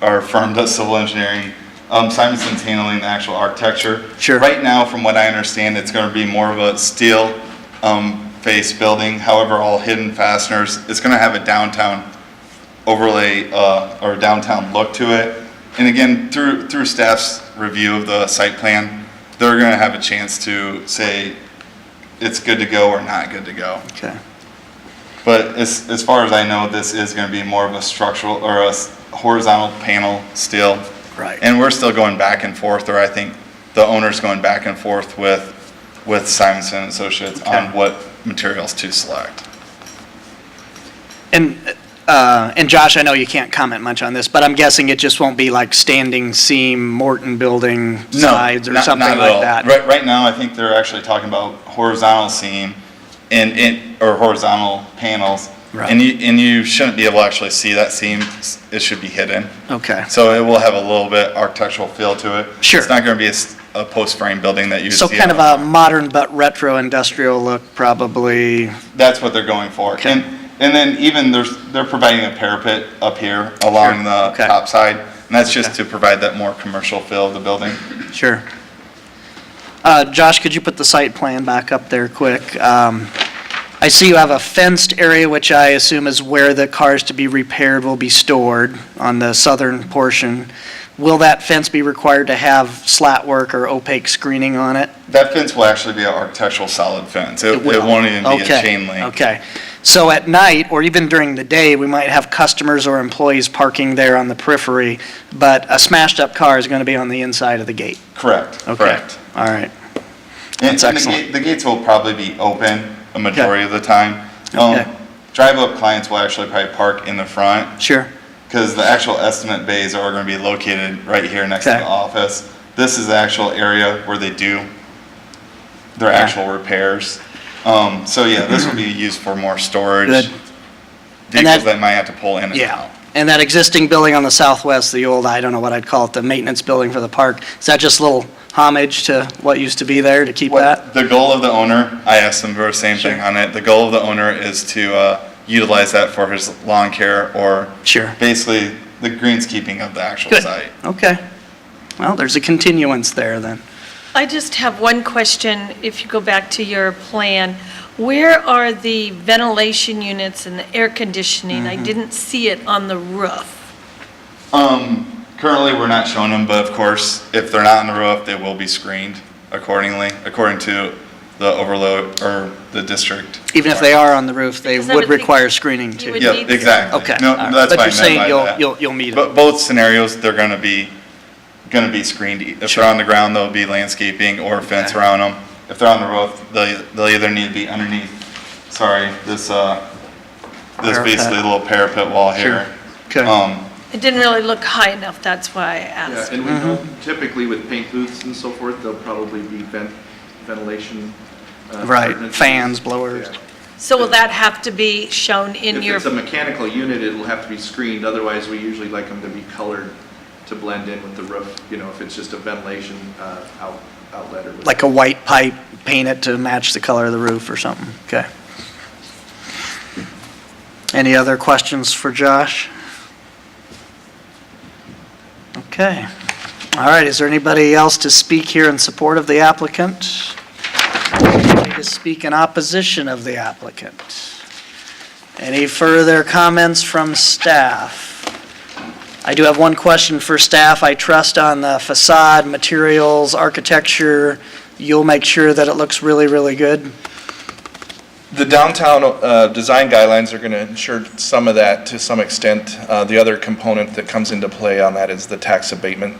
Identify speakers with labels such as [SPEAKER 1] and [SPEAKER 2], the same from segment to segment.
[SPEAKER 1] our firm does civil engineering. Um, Simonson's handling the actual architecture.
[SPEAKER 2] Sure.
[SPEAKER 1] Right now, from what I understand, it's gonna be more of a steel, um, face building, however, all hidden fasteners. It's gonna have a downtown overlay, uh, or downtown look to it. And again, through, through staff's review of the site plan, they're gonna have a chance to say it's good to go or not good to go.
[SPEAKER 2] Okay.
[SPEAKER 1] But as, as far as I know, this is gonna be more of a structural or a s- horizontal panel still.
[SPEAKER 2] Right.
[SPEAKER 1] And we're still going back and forth, or I think the owner's going back and forth with, with Simonson and Associates on
[SPEAKER 2] Okay.
[SPEAKER 1] what materials to select.
[SPEAKER 2] And, uh, and Josh, I know you can't comment much on this, but I'm guessing it just won't be like standing seam Morton building
[SPEAKER 1] No,
[SPEAKER 2] sides or
[SPEAKER 1] not-
[SPEAKER 2] something
[SPEAKER 1] not at all.
[SPEAKER 2] like that?
[SPEAKER 1] Right, right now, I think they're actually talking about horizontal seam and, and, or horizontal panels.
[SPEAKER 2] Right.
[SPEAKER 1] And you, and you shouldn't be able to actually see that seam, S- it should be hidden.
[SPEAKER 2] Okay.
[SPEAKER 1] So it will have a little bit architectural feel to it.
[SPEAKER 2] Sure.
[SPEAKER 1] It's not going to be a s- a, post-frame building that you see.
[SPEAKER 2] So kind of
[SPEAKER 1] on-
[SPEAKER 2] a modern but retro industrial look, probably,
[SPEAKER 1] That's what they're going for.
[SPEAKER 2] Okay.
[SPEAKER 1] And, and then even there's, they're providing a parapet up here along the
[SPEAKER 2] okay.
[SPEAKER 1] top side. And that's just
[SPEAKER 2] Okay.
[SPEAKER 1] to provide that more commercial feel of the building.
[SPEAKER 2] sure. Uh, Josh, could you put the site plan back up there quick? Um, I see you have a fenced area, which I assume is where the cars to be repaired will be stored on the southern portion. Will that fence be required to have slat work or opaque screening on it?
[SPEAKER 1] That fence will actually be an architectural solid fence. It it
[SPEAKER 2] will.
[SPEAKER 1] won't even be a
[SPEAKER 2] Okay,
[SPEAKER 1] chain link.
[SPEAKER 2] Okay, so at night, or even during the day, we might have customers or employees parking there on the periphery, but a smashed-up car is going to be on the inside of the gate.
[SPEAKER 1] Correct,
[SPEAKER 2] Okay.
[SPEAKER 1] correct.
[SPEAKER 2] All
[SPEAKER 1] And
[SPEAKER 2] right, That's
[SPEAKER 1] and the
[SPEAKER 2] excellent.
[SPEAKER 1] gate- The gates will probably be open a majority of the time. Um,
[SPEAKER 2] Okay.
[SPEAKER 1] Drive-up clients will actually probably park in the front.
[SPEAKER 2] sure,
[SPEAKER 1] Because the actual estimate bays are going to be located right here next to
[SPEAKER 2] Okay.
[SPEAKER 1] the office. This is the actual area where they do their actual repairs. Um, so yeah, this will be used for more storage.
[SPEAKER 2] Good. And that-
[SPEAKER 1] Vehicles that might have to pull in and out.
[SPEAKER 2] yeah. And that existing building on the southwest, the old, I don't know what I'd call it, the maintenance building for the park, is that just a little homage to what used to be there to keep that?
[SPEAKER 1] What, the goal of the owner, I asked them for the same
[SPEAKER 2] Sure.
[SPEAKER 1] thing on it. The goal of the owner is to, uh, utilize that for his lawn care or
[SPEAKER 2] Sure,
[SPEAKER 1] basically the greenskeeping of the actual
[SPEAKER 2] good,
[SPEAKER 1] site.
[SPEAKER 2] okay. Well, there's a continuance there then.
[SPEAKER 3] I just have one question, if you go back to your plan. Where are the ventilation units and the air conditioning?
[SPEAKER 4] Mm-hmm.
[SPEAKER 3] I didn't see it on the roof.
[SPEAKER 1] Um, currently, we're not showing them, but of course, if they're not on the roof, they will be screened accordingly, according to the overload or the district.
[SPEAKER 2] Even if they are on the roof, they
[SPEAKER 3] Because I
[SPEAKER 2] would
[SPEAKER 3] would think
[SPEAKER 2] require screening too.
[SPEAKER 3] would
[SPEAKER 1] Yeah,
[SPEAKER 3] need to-
[SPEAKER 1] exactly.
[SPEAKER 2] Okay,
[SPEAKER 1] No,
[SPEAKER 2] all right.
[SPEAKER 1] that's
[SPEAKER 2] But
[SPEAKER 1] what I
[SPEAKER 2] you're
[SPEAKER 1] meant
[SPEAKER 2] saying
[SPEAKER 1] by
[SPEAKER 2] you'll-
[SPEAKER 1] that.
[SPEAKER 2] you'll- you'll meet it.
[SPEAKER 1] But both scenarios, they're gonna be, gonna be screened. If
[SPEAKER 2] Sure.
[SPEAKER 1] they're on the ground, there'll be landscaping or fence
[SPEAKER 2] Okay.
[SPEAKER 1] around them. If they're on the roof, they'll, they'll either need to be underneath, sorry, this, uh, this
[SPEAKER 2] Parapet.
[SPEAKER 1] basically little parapet wall
[SPEAKER 2] Sure.
[SPEAKER 1] here.
[SPEAKER 2] Okay.
[SPEAKER 1] Um,
[SPEAKER 3] It didn't really look high enough, that's why I
[SPEAKER 4] Yeah,
[SPEAKER 3] asked.
[SPEAKER 4] and we
[SPEAKER 5] Mm-hmm.
[SPEAKER 4] know typically with paint booths and so forth, there'll probably be vent, ventilation. uh,
[SPEAKER 2] Right,
[SPEAKER 4] ordinances.
[SPEAKER 2] fans, blowers.
[SPEAKER 4] Yeah.
[SPEAKER 3] So will that have to be shown in
[SPEAKER 4] If
[SPEAKER 3] your,
[SPEAKER 4] it's a mechanical unit, it'll have to be screened, otherwise we usually like them to be colored to blend in with the roof, you know, if it's just a ventilation uh, out- outlet or. whatever.
[SPEAKER 2] Like a white pipe, paint it to match the color of the roof or something, okay. Any other questions for Josh? Okay. All right, is there anybody else to speak here in support of the applicant? Anybody To speak in opposition of the applicant? Any further comments from staff? I do have one question for staff. I trust on the facade, materials, architecture, you'll make sure that it looks really, really good?
[SPEAKER 5] The downtown uh, design guidelines are going to ensure some of that to some extent. Uh, The other component that comes into play on that is the tax abatement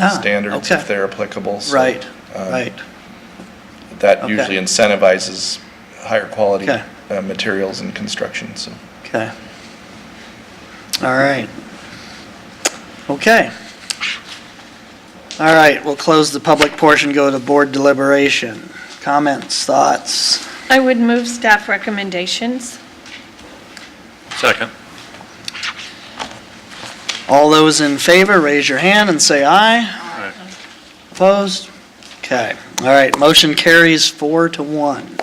[SPEAKER 2] Ah,
[SPEAKER 5] standards,
[SPEAKER 2] okay.
[SPEAKER 5] if they're applicable. So
[SPEAKER 2] Right,
[SPEAKER 5] uh,
[SPEAKER 2] right.
[SPEAKER 5] That
[SPEAKER 2] okay.
[SPEAKER 5] usually incentivizes higher quality
[SPEAKER 2] Okay.
[SPEAKER 5] uh, materials and construction, so.
[SPEAKER 2] Okay. All right. Okay. All right, we'll close the public portion, go to board deliberation. Comments, thoughts?
[SPEAKER 3] I would move staff recommendations.
[SPEAKER 6] Second.
[SPEAKER 2] All those in favor, raise your hand and say aye. Opposed? Okay. All right, motion carries four to one.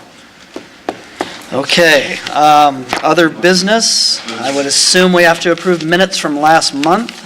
[SPEAKER 2] Okay, um, other business, I would assume we have to approve minutes from last month.